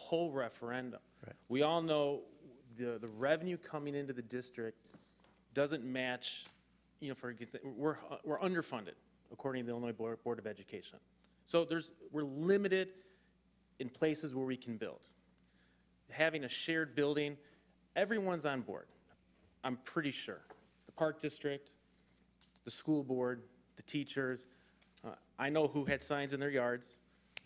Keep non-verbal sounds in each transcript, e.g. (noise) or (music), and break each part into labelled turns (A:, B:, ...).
A: whole referendum.
B: Right.
A: We all know the, the revenue coming into the district doesn't match, you know, for, we're, we're underfunded, according to the Illinois Board Board of Education. So there's, we're limited in places where we can build. Having a shared building, everyone's on board, I'm pretty sure. The Park District, the school board, the teachers. Uh, I know who had signs in their yards,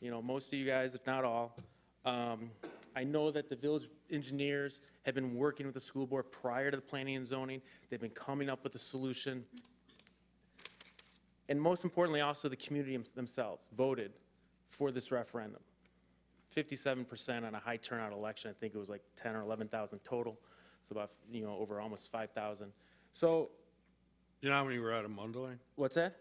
A: you know, most of you guys, if not all. Um, I know that the village engineers have been working with the school board prior to the planning and zoning. They've been coming up with a solution. And most importantly, also the community themselves voted for this referendum. 57% on a high turnout election. I think it was like 10 or 11,000 total. So about, you know, over almost 5,000. So
C: You know how many were out of Mundelein?
A: What's that?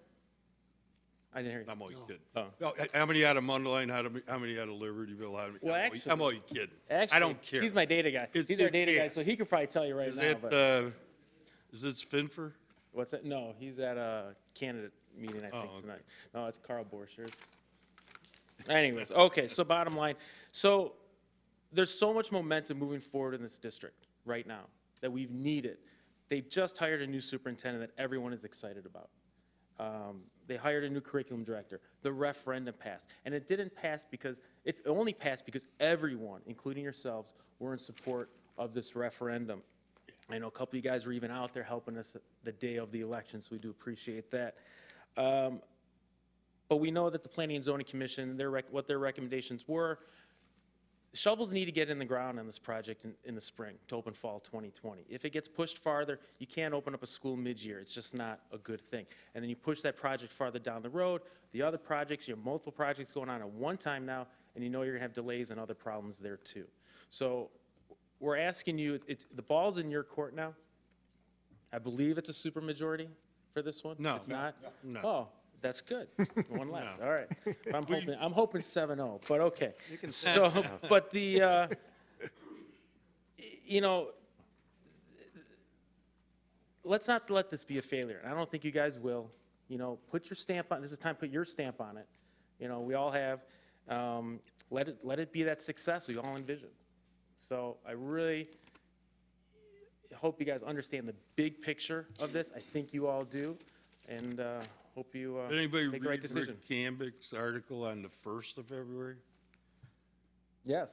A: I didn't hear you.
C: I'm only kidding.
A: Oh.
C: No, h- How many out of Mundelein? How many, how many out of Libertyville? How many-
A: Well,
C: I'm only- I'm
A: actually-
C: only kidding.
A: Actually,
C: I don't care.
A: He's my data guy.
C: It's-
A: he's our
C: it-
A: data guy,
C: yes.
A: so he could probably tell you right
C: Is
A: now.
C: that,
A: but
C: uh, is it Finfer?
A: what's that? No, he's at a candidate meeting I think
C: Oh, okay.
A: tonight. No, it's Carl Borchers. Anyways, okay. So bottom line, so there's so much momentum moving forward in this district right now that we've needed. They just hired a new superintendent that everyone is excited about. Um, they hired a new curriculum director. The referendum passed, and it didn't pass because it only passed because everyone, including yourselves, were in support of this referendum. I know a couple of you guys were even out there helping us the day of the election, so we do appreciate that. Um, but we know that the Planning and Zoning Commission, their rec- what their recommendations were, shovels need to get in the ground on this project in, in the spring to open fall 2020. If it gets pushed farther, you can't open up a school mid-year. It's just not a good thing. And then you push that project farther down the road. The other projects, you have multiple projects going on at one time now, and you know you're gonna have delays and other problems there too. So we're asking you, it's, the ball's in your court now. I believe it's a supermajority for this one.
C: No.
A: It's not?
C: No.
A: Oh, that's
C: (laughs)
A: good. One less,
C: No.
A: all right. But I'm hoping, I'm hoping 7-0, but okay.
B: can say
A: So, (laughs) but the, uh, you know, let's not let this be a failure. And I don't think you guys will. You know, put your stamp on. This is time. to Put your stamp on it. You know, we all have. Um, let it let it be that success we all envision. So I really hope you guys understand the big picture of this. I think you all do, and uh, hope you uh,
C: Did anybody
A: make the right
C: read
A: decision. Mm-hmm.
C: Rick Cambick's article on the 1st of February?
A: Yes,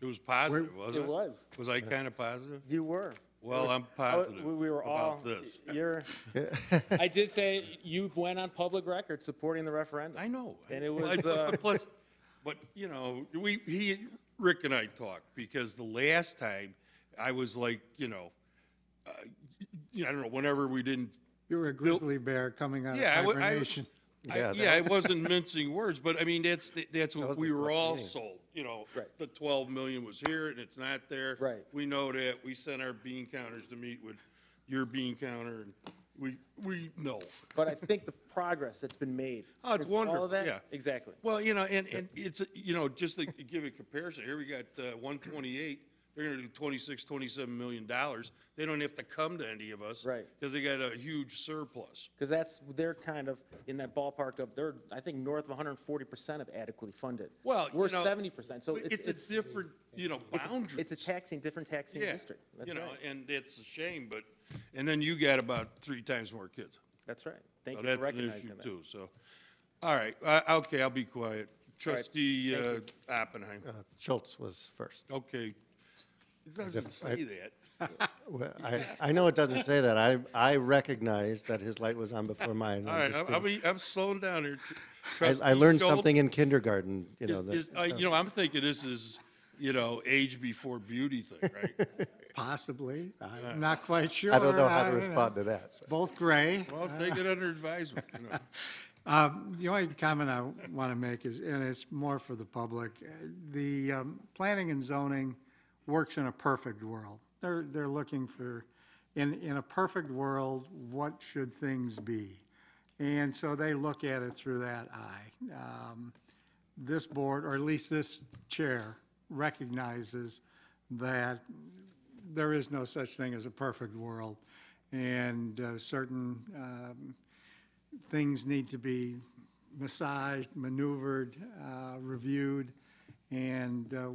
C: It was positive,
A: it
C: wasn't it?
A: was.
C: Was I kind of positive?
A: You were.
C: Well, I'm
A: I w-
C: positive
A: we- we were all.
C: about this. (laughs)
A: You're.
D: (laughs)
A: I did say you went on public record supporting the referendum.
C: I know.
A: And it
C: Well, I-
A: was, uh,
C: (laughs) Plus, but, you know, we, he, Rick and I talked, because the last time, I was like, you know, uh, y- y- I don't know, whenever we didn't
D: You were a grizzly bear coming out of
C: Yeah, I wa- I-
D: hibernation.
C: I-
B: Yeah,
C: Yeah,
B: (laughs)
C: I wasn't mincing words, but I mean, that's, the- that's
B: was
C: what
B: the
C: we were
B: correct
C: all
B: meaning.
C: sold, you know?
A: Right.
C: The 12 million was here and it's not there.
A: Right.
C: We know that. We sent our bean counters to meet with your bean counter and we, we know.
A: But I think the progress that's been made.
C: Oh, it's
A: since all of
C: wonderful,
A: that-
C: yeah.
A: Exactly.
C: Well, you know, and, and it's, you know, just to give a comparison, here we got uh, 128, they're gonna do 26, 27 million dollars. They don't have to come to any of us.
A: Right.
C: Because they got a huge surplus.
A: Because that's, they're kind of in that ballpark of, they're, I think, north of 140% of adequately funded.
C: Well, you
A: We're
C: know,
A: 70%, so it's,
C: It's a
A: it's,
C: different, you know,
A: it's a-
C: boundary.
A: it's a taxing, different taxing
C: Yeah,
A: district. That's
C: You know,
A: right.
C: and it's a shame, but, and then you got about three times more kids.
A: That's right. Thank
C: So
A: you
C: that's
A: for
C: an
A: recognizing
C: issue
A: that.
C: too, so. All right, I- okay, I'll be quiet. Trustee
A: thank
C: uh,
A: you.
C: Oppenheim,
B: Uh, Schultz was first.
C: okay. It doesn't
B: if
C: say that.
B: Well, I, I know it doesn't say that. I, I recognize that his light was on before mine.
C: All
B: I'm
C: right,
B: just
C: I'm-
B: being-
C: I'm, be- I'm slowing down here. Tr-
B: I, I
C: Trustee
B: learned
C: Schultz
B: something in kindergarten, you know,
C: is-
B: that, uh,
C: is- I- You know, I'm thinking this is, you know, age before beauty thing,
B: (laughs)
C: right?
D: Possibly. I'm not quite sure.
B: I don't know how to
D: I
B: respond to that.
D: Both gray.
C: Well, take it under advisement, you know.
D: Um, The only comment I want to make is, and it's more for the public, uh, the um, planning and zoning works in a perfect world. They're, they're looking for, in, in a perfect world, what should things be? And so they look at it through that eye. Um, This board, or at least this chair, recognizes that there is no such thing as a perfect world. And uh, certain um, things need to be massaged, maneuvered, uh, reviewed, and uh,